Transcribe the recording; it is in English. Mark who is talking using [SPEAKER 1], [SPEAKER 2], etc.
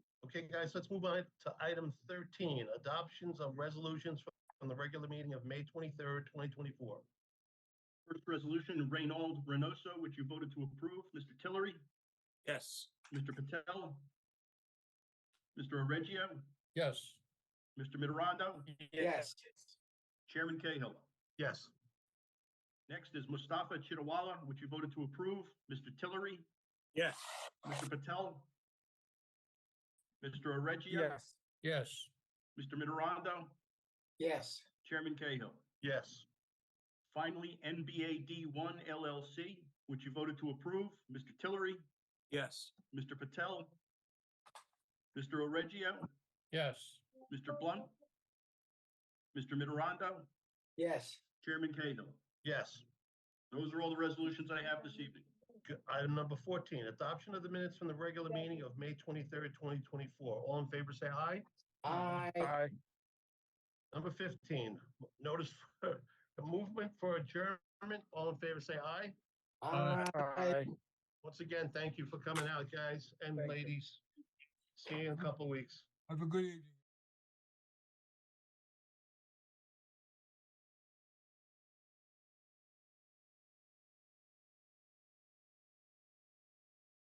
[SPEAKER 1] Okay, guys, let's move on to item 13, adoptions of resolutions from the regular meeting of May 23rd, 2024.
[SPEAKER 2] First resolution, Reynold Reynoso, which you voted to approve. Mr. Tillery,
[SPEAKER 3] yes,
[SPEAKER 2] Mr. Patel, Mr. Oreggio,
[SPEAKER 4] yes,
[SPEAKER 2] Mr. Mitterondo,
[SPEAKER 5] yes,
[SPEAKER 2] Chairman Cahill.
[SPEAKER 1] Yes,
[SPEAKER 2] Next is Mustafa Chitawala, which you voted to approve. Mr. Tillery,
[SPEAKER 3] yes,
[SPEAKER 2] Mr. Patel, Mr. Oreggio,
[SPEAKER 5] yes,
[SPEAKER 4] yes,
[SPEAKER 2] Mr. Mitterondo,
[SPEAKER 5] yes,
[SPEAKER 2] Chairman Cahill.
[SPEAKER 1] yes,
[SPEAKER 2] Finally, NBA D1 LLC, which you voted to approve. Mr. Tillery,
[SPEAKER 3] yes,
[SPEAKER 2] Mr. Patel, Mr. Oreggio,
[SPEAKER 4] yes,
[SPEAKER 2] Mr. Blunt, Mr. Mitterondo,
[SPEAKER 5] yes,
[SPEAKER 2] Chairman Cahill.
[SPEAKER 1] yes.
[SPEAKER 2] Those are all the resolutions I have this evening.
[SPEAKER 1] Good. Item number 14, adoption of the minutes from the regular meeting of May 23rd, 2024. All in favor, say aye.
[SPEAKER 5] I,
[SPEAKER 4] I,
[SPEAKER 1] Number 15, notice for the movement for adjournment. All in favor, say aye.
[SPEAKER 5] I,
[SPEAKER 4] I,
[SPEAKER 1] Once again, thank you for coming out, guys and
[SPEAKER 5] Thank you.
[SPEAKER 1] ladies. See you in a couple weeks.
[SPEAKER 6] Have a good evening.